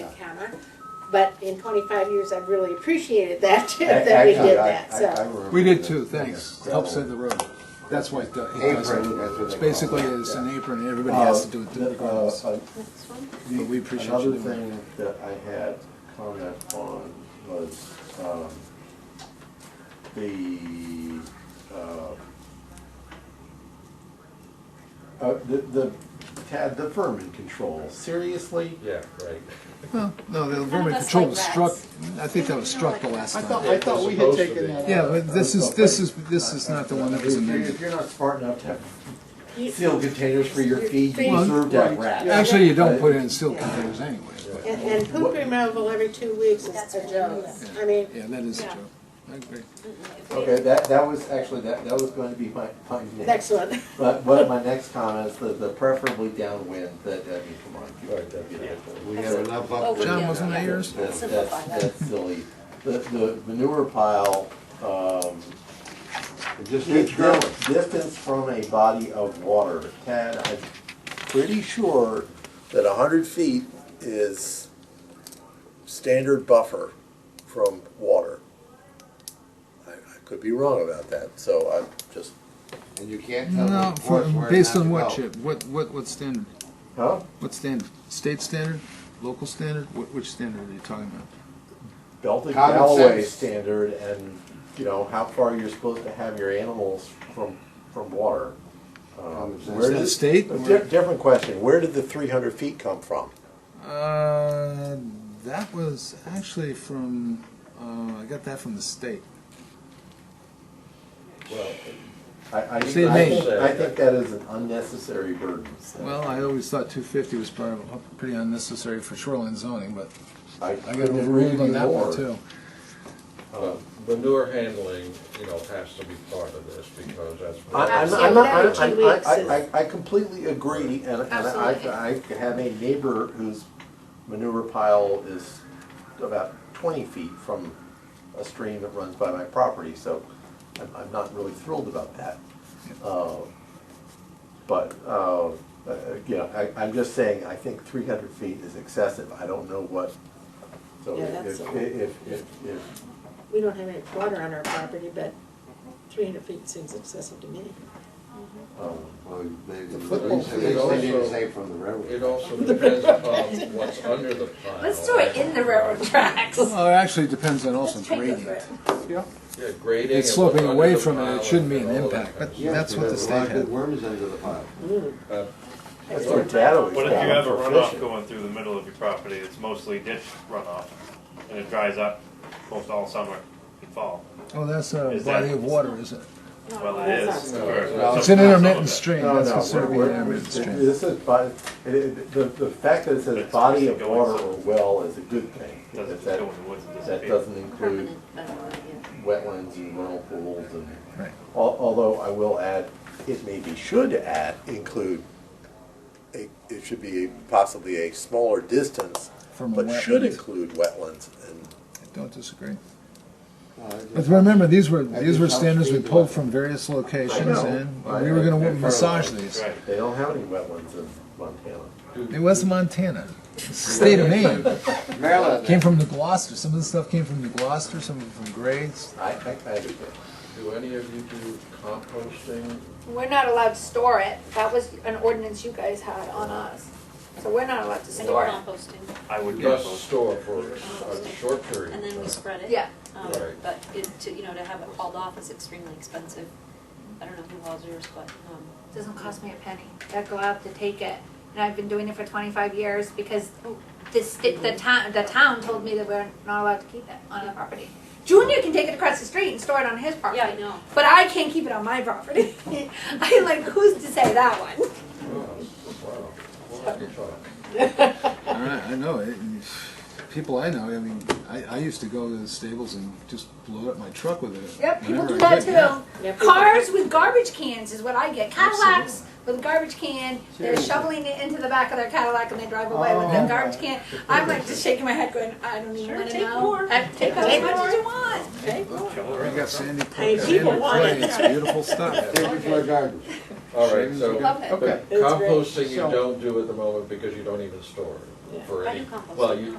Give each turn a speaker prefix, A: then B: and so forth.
A: a comma. But in twenty-five years, I've really appreciated that, too,
B: A-
A: that we
B: actually,
A: did
B: I-
A: that,
B: I- I
A: so.
B: remember
C: We did
B: that.
C: too, thanks.
B: Yeah.
C: Helps save the road. That's why it do- it does.
B: Apron,
C: it.
B: that's what they
C: It's
B: call
C: basically
B: it,
C: it's
B: yeah.
C: an apron, and everybody has to do it
B: Uh, the-
C: regardless.
B: uh, uh,
A: Next one?
B: the-
C: But we appreciate you
B: Another
C: doing it.
B: thing that I had comment on was, um, the, uh, uh, the, the, Tad, the vermin control, seriously?
D: Yeah, right.
C: Well, no, the
A: None of
C: vermin
A: us
C: control
A: like
C: was
A: rats.
C: struck, I think that was struck the last
B: I thought,
C: time.
B: I thought we had
D: Supposed to
B: taken
D: be.
B: that out.
C: Yeah, but this is, this is, this is not the one that was
B: If you're-
C: amended.
B: If you're not smart enough to have
A: You-
B: sealed containers for your feed, you
A: Well,
B: deserve to have rats.
C: Actually, you don't put it in sealed containers anyways, but,
A: And, and poop removal every two weeks is a joke. I mean,
C: yeah, that is true. I agree.
B: Okay, that, that was actually, that, that was going to be my, my
A: next one.
B: But what my next comment is the, the preferably downwind, that, I mean, come on. you-
D: Right, that's right.
B: We have enough up.
E: Over
B: there.
C: John, wasn't that yours?
B: That's,
E: Simplify
B: that's,
E: that.
B: that's silly. The, the manure pile, um,
D: Just
B: di- di- distance from a body of water. Tad, I'm pretty sure
F: that a hundred feet is standard buffer from water. I, I could be wrong about that, so I'm just,
G: And you can't tell
C: No,
G: them, of course,
C: for-
G: where
C: based
G: not
C: on
G: to
C: what,
G: go.
C: Chip? What, what, what standard?
B: Huh?
C: What standard? State standard? Local standard? Wh- Which standard are you talking about?
B: belted
G: Common
B: Galloway
G: sense.
B: standard and, you know, how far you're supposed to have your animals from, from water. Um,
G: sense.
B: where
C: Is that
B: did-
C: state
B: a
C: or-
B: di-
F: different question, where did the three hundred feet come from?
C: Uh, that was actually from, uh, I got that from the state.
D: Well,
B: I, I, I
C: See, it
B: think,
D: may-
B: I think that is an unnecessary burden. so
C: Well, I always thought two fifty was probably pretty unnecessary for shoreline zoning, but
B: I
C: I got
B: couldn't agree
C: overruled
B: with you
C: on that
B: more.
C: one too.
D: but manure handling, you know, has to be part of this because that's.
B: I, I'm, I'm
A: Absolutely.
B: not, I'm-
A: Every two
B: I'm, I,
A: weeks is-
B: I, I- I completely agree, and, and
A: Absolutely.
B: I, I have a neighbor whose manure pile is about twenty feet from a stream that runs by my property, so I'm, I'm not really thrilled about that. Uh, But, uh, uh, you know, I, I'm just saying, I think three hundred feet is excessive, I don't know what, so
A: Yeah,
B: if,
A: that's
B: if,
A: a-
B: if, if, if
A: We don't have any water on our property, but three hundred feet seems excessive to me.
G: Well, they, they
B: football
G: didn't- they didn't
D: field.
G: say from the railroad.
D: It also depends upon what's under the pile.
E: Let's do it in the railroad tracks.
C: Well, it actually depends on also
E: Let's take it for
C: gradient.
E: it.
D: Yeah, grading.
C: It's
D: and
C: sloping
D: what's
C: away
D: under the
C: from it,
D: pile
C: it shouldn't be
D: and
C: an
D: all that
C: impact,
D: kind
C: but
D: of
G: Yeah,
C: that's what the
G: because
C: state
G: lots of
C: had.
G: Worms under the pile.
D: stuff. Uh,
B: that's where that always.
H: What if
B: got
H: you have a runoff
B: proficient.
H: going through the middle of your property, it's mostly ditch runoff, and it dries up most all summer and fall?
C: Oh, that's a
H: Is that-
C: body of water, is it?
H: Well, it is.
D: No,
H: or-
D: no.
C: It's
H: some-
C: an
H: some of
C: intermittent
H: it.
C: stream,
B: No,
C: that's
B: no,
C: considered to be
B: we're-
C: an
B: we're-
C: intermittent stream.
B: This is, body- it- it- the, the fact that it says
H: That's
B: body of
H: actually going
B: water or
H: somewhere.
B: well is a good thing.
H: Doesn't
B: because
H: just
B: That,
H: go in the woods and
B: that
H: disappear.
B: doesn't include
E: Permanent, I don't know,
B: uh, wetlands and rental pools and,
C: Right.
B: al- although I will add,
F: It maybe should add, include, a, it should be possibly a smaller distance,
C: From a
F: but should
C: wetland.
F: include wetlands and
C: I Don't disagree.
G: No, it
C: But
G: just-
C: remember, these were, these were
G: just helps
C: standards we
G: speed the
C: pulled
G: wetland.
C: from various
B: I
C: locations
B: know.
C: and
B: I-
C: we were
B: I-
C: gonna
B: I-
C: massage these.
H: Right.
B: they don't have any wetlands in Montana.
C: It was Montana, It's the state of Maine.
G: Maryland.
C: Came from New Gloucester. Some of the stuff came from New Gloucester, some of it from Grays.
B: I, I, I agree.
D: Do any of you do composting?
E: We're not allowed to store it. That was an ordinance you guys had on us. So we're not allowed to
I: And
E: store it.
I: composting,
H: I would
D: Just
H: compost.
D: store for a short period.
I: and then we spread it.
E: Yeah.
I: Um,
D: Right.
I: But it, to, you know, to have it hauled off is extremely expensive. I don't know who hauls yours, but, um,
E: Doesn't cost me a penny. I go out to take it. And I've been doing it for twenty-five years because the sti the town, the town told me that we're not allowed to keep it on our property. Junior can take it across the street and store it on his property.
I: yeah, I know.
E: But I can't keep it on my property. I'm like, who's to say that one?
D: Wow, Oh, wow. Wow, good talk.
C: All right, I know. It, people I know, I mean, I, I used to go to the stables and just blow up my truck with it.
E: Yep, people
C: whenever
E: do
C: I
E: that
C: could, yeah.
A: Yeah,
E: too.
A: people-
E: Cars with garbage cans is what I get. Cadillacs
C: Absolutely.
E: with a garbage can, they're
G: Seriously.
E: shoveling it into the back of their Cadillac and they drive away with their
C: Oh.
E: garbage can. I'm like just shaking my head going, I don't even
A: Sure,
E: wanna
A: take
E: know.
A: more.
E: I- Take as
A: Take
E: much
A: more.
E: as you want.
A: Okay?
C: I got Sandy Point,
A: Hey,
C: Sandy
A: people want
C: Clay,
A: it.
C: It's beautiful stuff.
G: Thank you for the garbage.
D: All right, so.
E: Love it.
D: But
A: It's great.
D: composting you
G: So-
D: don't do at the moment because you don't even store it for
I: I
D: any,
I: do compost.
D: well, you,